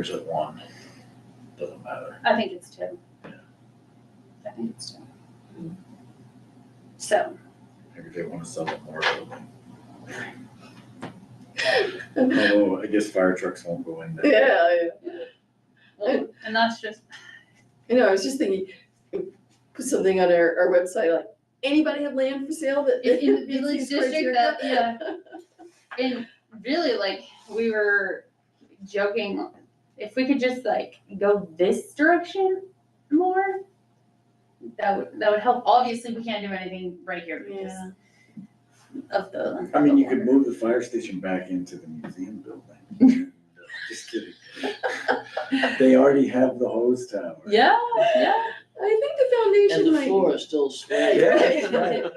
is it one? Doesn't matter. I think it's two. Yeah. I think it's two. So, Maybe they wanna sell it more. Oh, I guess fire trucks won't go in there. Yeah, yeah. well, and that's just, I know, I was just thinking, put something on our, our website, like, anybody have land for sale that? In- in the meets village these district criteria?" that- yeah. and really, like, we were joking, if we could just like go this direction more, that would, that would help. Obviously, we can't do anything right here because Yeah. of the. I mean, you the could move the fire station back into the museum building. Just kidding. They already have the hose tower. water. Yeah, yeah. I think the And foundation the might. floor is still sweaty. Yeah, that's right.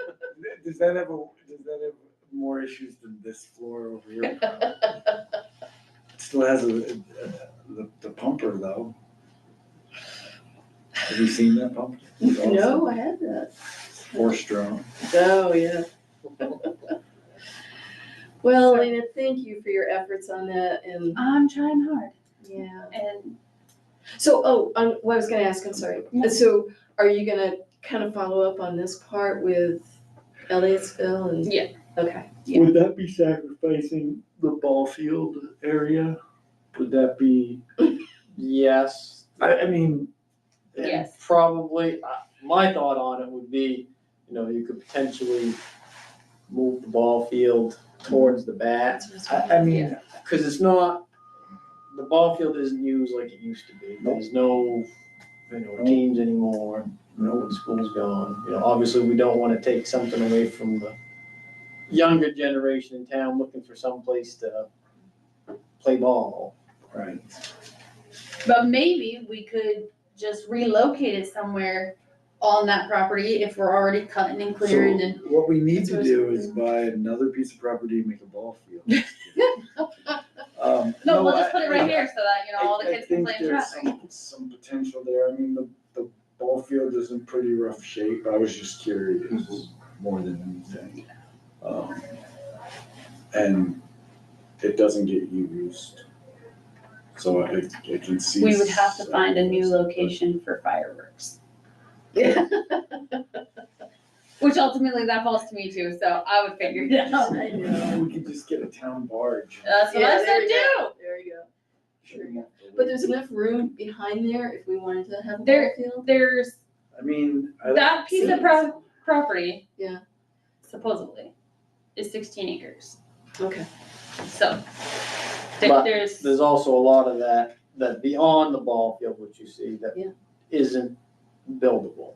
Does that have a, does that have more issues than this floor over here? It Still has a, a- the, the pumper though. Have you seen that pump? It's awesome. No, I had that. Four strong. Oh, yeah. Well, Elena, thank you for your efforts on that and, I'm trying hard yeah. and So, oh, um, what I was gonna ask, I'm sorry. No. So are you gonna kind of follow up on this part with Elliottsville and? Yeah. Okay, Yeah. Would that be sacrificing the ball field area? Would that be, Yes, I, I mean, and Yes. probably, uh, my thought on it would be, you know, you could potentially move the ball field towards the bat. that's what I was I, I wondering. mean, Cause it's not, the ball field isn't used like it used to be. There's no, you know, teams anymore. No, school's gone. You know, obviously, we don't wanna take something away from the younger generation in town looking for someplace to play ball. Right. But maybe we could just relocate it somewhere on that property if we're already cutting and clearing So and. what we need to That's do what I was is buy another piece of property and make a ball field. Um, No, we'll just I- put it right here so that, you know, all the I- I kids can think play in there's traffic. some- Some potential there, I mean, the, the ball field is in pretty rough shape, I was just curious, more than anything. Um, And it doesn't get used, so I, I can see. We would have to find a new location for fireworks, Yeah. which ultimately that falls to me too, so I would figure it out. I know. We could just get a town barge. That's what Yeah, I there said you too. go. There you go. Sure, yeah. But there's enough room behind there if we wanted to have a ball There- field? There's I mean, I. that piece of pro- property. Yeah. Supposedly, is sixteen acres, Okay. so there- But there's. There's also a lot of that, that beyond the ball field, which you see, that Yeah. isn't buildable,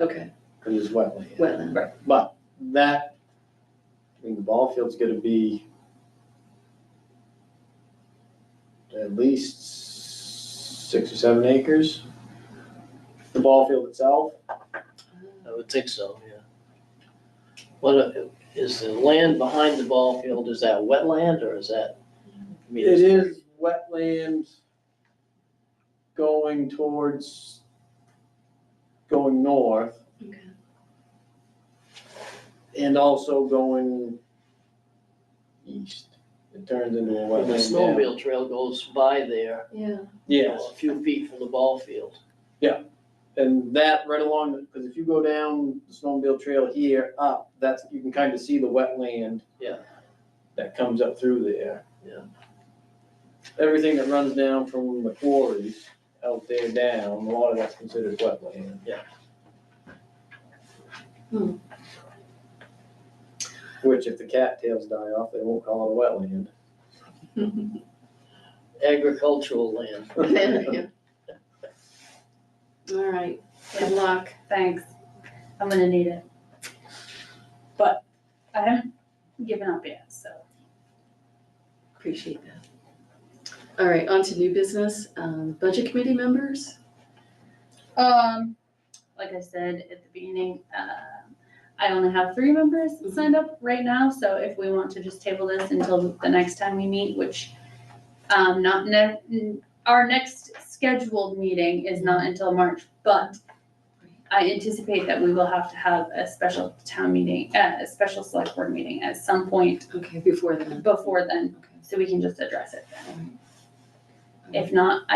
Okay, cause it's wetland. well, then. But that, I mean, the ball field's gonna be at least six or seven acres. The ball field itself, Uh, I would think so, yeah. What, uh, is the land behind the ball field, is that wetland or is that? I mean, it is wetland going towards, going north okay. and also going east. It turns into a The wetland now. snowmobile trail goes by there, Yeah, Yes. a few feet from the ball field. And that right along, because if you go down the snowmobile trail here up, that's, you can kind of see the wetland. Yeah. That comes up through there. Yeah. Everything that runs down from the quarries out there down, a lot of that's considered wetland. Yeah. Hmm. Which if the cattails die off, they won't call it Agricultural land. a wetland. yeah. All right, good luck. Thanks. I'm gonna need it. But I haven't given up yet, so. Appreciate that. All right, on to new business, um, budget committee members? Um, like I said at the beginning, um, I only have three members signed up right now, so if we want to just table this until the next time we meet, which um, not ne- n- our next scheduled meeting is not until March, but I anticipate that we will have to have a special town meeting, uh, a special select board meeting at some point Okay, before then. before then, Okay. so we can just address it then. If not,